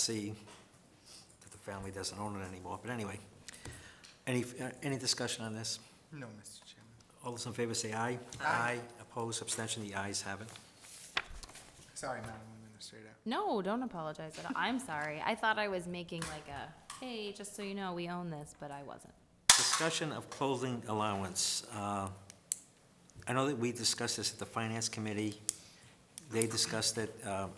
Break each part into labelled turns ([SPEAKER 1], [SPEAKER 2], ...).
[SPEAKER 1] see that the family doesn't own it anymore, but anyway. Any, uh, any discussion on this?
[SPEAKER 2] No, Mr. Chairman.
[SPEAKER 1] All those in favor say aye. Aye. Oppose, abstention, the ayes have it.
[SPEAKER 2] Sorry, Madam Administrator.
[SPEAKER 3] No, don't apologize at all. I'm sorry. I thought I was making like a, hey, just so you know, we own this, but I wasn't.
[SPEAKER 1] Discussion of clothing allowance. Uh, I know that we discussed this at the Finance Committee. They discussed that uh,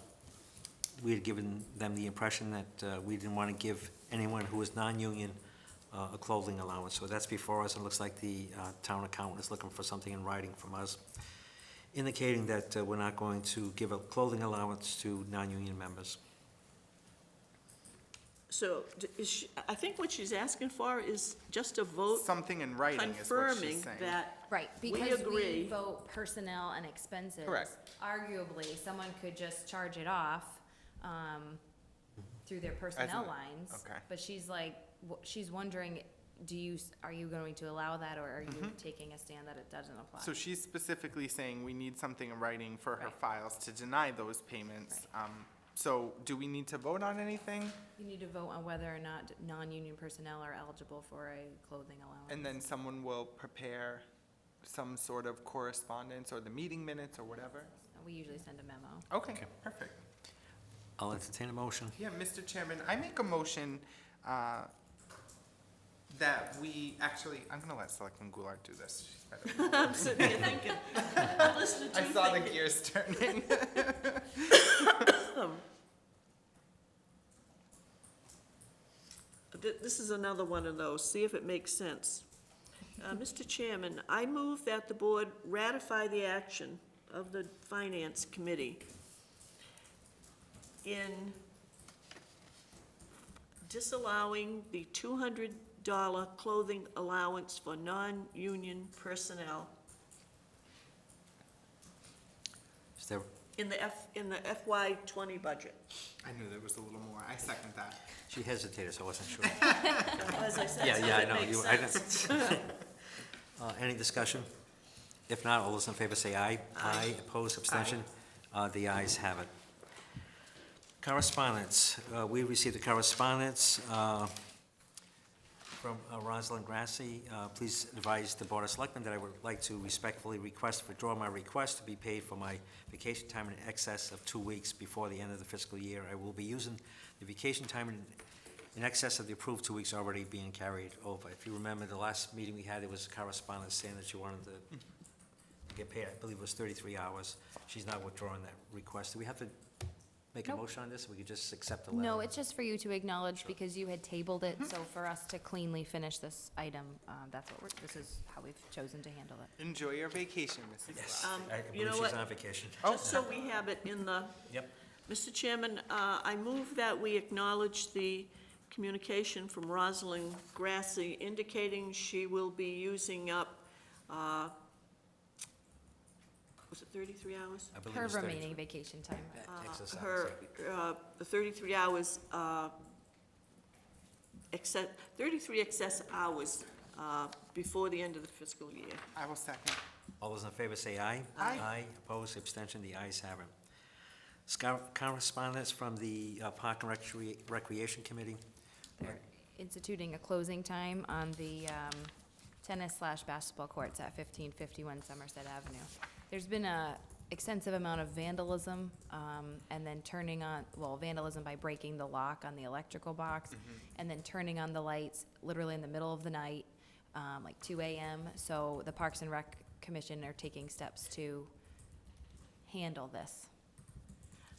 [SPEAKER 1] we had given them the impression that uh, we didn't want to give anyone who was non-union uh, a clothing allowance. So that's before us, and it looks like the uh, town accountant is looking for something in writing from us indicating that uh, we're not going to give a clothing allowance to non-union members.
[SPEAKER 4] So d- is she, I think what she's asking for is just a vote
[SPEAKER 2] Something in writing is what she's
[SPEAKER 4] confirming
[SPEAKER 2] saying.
[SPEAKER 4] that.
[SPEAKER 3] Right,
[SPEAKER 4] We
[SPEAKER 3] because we
[SPEAKER 4] agree.
[SPEAKER 3] vote personnel and expenses.
[SPEAKER 2] Correct.
[SPEAKER 3] Arguably, someone could just charge it off, um, through their personnel lines.
[SPEAKER 2] okay.
[SPEAKER 3] But she's like, w- she's wondering, do you, s- are you going to allow that, or are you taking a stand that it doesn't apply?
[SPEAKER 2] Mm-hmm. So she's specifically saying we need something in writing for her
[SPEAKER 3] Right.
[SPEAKER 2] files to deny those payments. Um, So do we need to vote on anything?
[SPEAKER 3] You need to vote on whether or not non-union personnel are eligible for a clothing allowance.
[SPEAKER 2] And then someone will prepare some sort of correspondence or the meeting minutes or whatever?
[SPEAKER 3] We usually send a memo.
[SPEAKER 2] Okay, perfect.
[SPEAKER 1] I'll entertain a motion.
[SPEAKER 2] Yeah, Mr. Chairman, I make a motion uh, that we, actually, I'm going to let Selectman Goulart do this. She's better than me.
[SPEAKER 4] I'm sitting here thinking, I'm listening to
[SPEAKER 2] I
[SPEAKER 4] you
[SPEAKER 2] saw the
[SPEAKER 4] thinking.
[SPEAKER 2] gears turning.
[SPEAKER 4] Th- This is another one of those, see if it makes sense. Uh, Mr. Chairman, I move that the board ratify the action of the Finance Committee in disallowing the two hundred dollar clothing allowance for non-union personnel
[SPEAKER 1] Is there,
[SPEAKER 4] in the F, in the FY twenty budget.
[SPEAKER 2] I knew there was a little more. I second that.
[SPEAKER 1] she hesitated, so I wasn't sure.
[SPEAKER 4] As I said,
[SPEAKER 1] Yeah, yeah, I
[SPEAKER 4] something
[SPEAKER 1] know.
[SPEAKER 4] makes
[SPEAKER 1] You- I know.
[SPEAKER 4] sense.
[SPEAKER 1] Uh, Any discussion? If not, all those in favor say aye. Aye. Opposed, abstention? Uh, The ayes have it. Correspondence. Uh, We received a correspondence uh, from uh, Rosalind Grassi. Uh, Please advise the Board of Selectmen that I would like to respectfully request, withdraw my request to be paid for my vacation time in excess of two weeks before the end of the fiscal year. I will be using the vacation time in in excess of the approved two weeks already being carried over. If you remember, the last meeting we had, there was a correspondence saying that she wanted to get paid, I believe it was thirty-three hours. She's not withdrawing that request. Do we have to make a
[SPEAKER 3] Nope.
[SPEAKER 1] motion on this? We could just accept the letter?
[SPEAKER 3] No, it's just for you to acknowledge because you had tabled it, so for us to cleanly finish this item, um, that's what we're, this is how we've chosen to handle it.
[SPEAKER 2] Enjoy your vacation, Mrs.
[SPEAKER 1] Yes,
[SPEAKER 2] Lau.
[SPEAKER 4] Um,
[SPEAKER 1] I
[SPEAKER 4] you know
[SPEAKER 1] believe she's
[SPEAKER 4] what?
[SPEAKER 1] on vacation.
[SPEAKER 4] Just Oh, so we have it in the,
[SPEAKER 1] Yep.
[SPEAKER 4] Mr. Chairman, uh, I move that we acknowledge the communication from Rosalind Grassi indicating she will be using up, uh, was it 33 hours?
[SPEAKER 1] I believe
[SPEAKER 3] Her
[SPEAKER 1] it's 33.
[SPEAKER 3] remaining vacation time, right?
[SPEAKER 1] That takes us out,
[SPEAKER 4] Her,
[SPEAKER 1] so-
[SPEAKER 4] uh, the 33 hours, uh, exce- 33 excess hours uh, before the end of the fiscal year.
[SPEAKER 2] I will second.
[SPEAKER 1] All those in favor say aye.
[SPEAKER 2] Aye.
[SPEAKER 1] Aye, opposed, abstention, the ayes have it. Scar- Correspondence from the uh, Park and Recre- Recreation Committee.
[SPEAKER 3] They're instituting a closing time on the um, tennis slash basketball courts at fifteen fifty-one Somerset Avenue. There's been a extensive amount of vandalism, um, and then turning on, well, vandalism by breaking the lock on the electrical box, and then turning on the lights literally in the middle of the night, um, like two AM. So the Parks and Rec Commission are taking steps to handle this.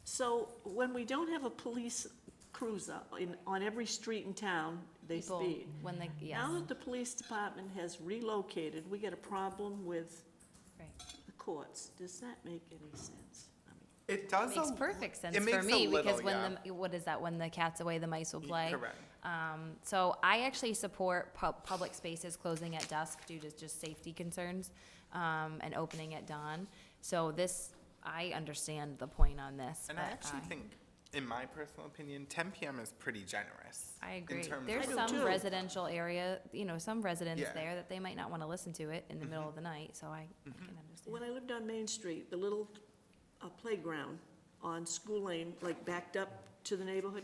[SPEAKER 4] So when we don't have a police cruiser in, on every street in town, they
[SPEAKER 3] People,
[SPEAKER 4] speed.
[SPEAKER 3] When they, yes,
[SPEAKER 4] Now that the police department has relocated, we get a problem with
[SPEAKER 3] right.
[SPEAKER 4] the courts. Does that make any sense? I mean,
[SPEAKER 2] It does a.
[SPEAKER 3] Makes
[SPEAKER 2] l-
[SPEAKER 3] perfect sense
[SPEAKER 2] it
[SPEAKER 3] for
[SPEAKER 2] makes a
[SPEAKER 3] me,
[SPEAKER 2] little,
[SPEAKER 3] because when
[SPEAKER 2] yeah.
[SPEAKER 3] the, what is that, when the cat's away, the mice will
[SPEAKER 2] Y-
[SPEAKER 3] play?
[SPEAKER 2] Correct.
[SPEAKER 3] Um, so I actually support pub, public spaces closing at dusk due to just safety concerns, um, and opening at dawn. So this, I understand the point on this,
[SPEAKER 2] And I
[SPEAKER 3] but
[SPEAKER 2] actually think, in my personal opinion, ten PM is pretty generous.
[SPEAKER 3] I agree.
[SPEAKER 2] In terms
[SPEAKER 3] There's
[SPEAKER 2] of,
[SPEAKER 4] I do
[SPEAKER 3] some
[SPEAKER 4] too.
[SPEAKER 3] residential area, you know, some residents
[SPEAKER 2] Yeah. Mm-hmm.
[SPEAKER 3] there that they might not wanna listen to it in the middle of the night, so I, I can
[SPEAKER 4] When
[SPEAKER 3] understand.
[SPEAKER 4] I lived on Main Street, the little uh, playground on School Lane, like backed up to the neighborhood,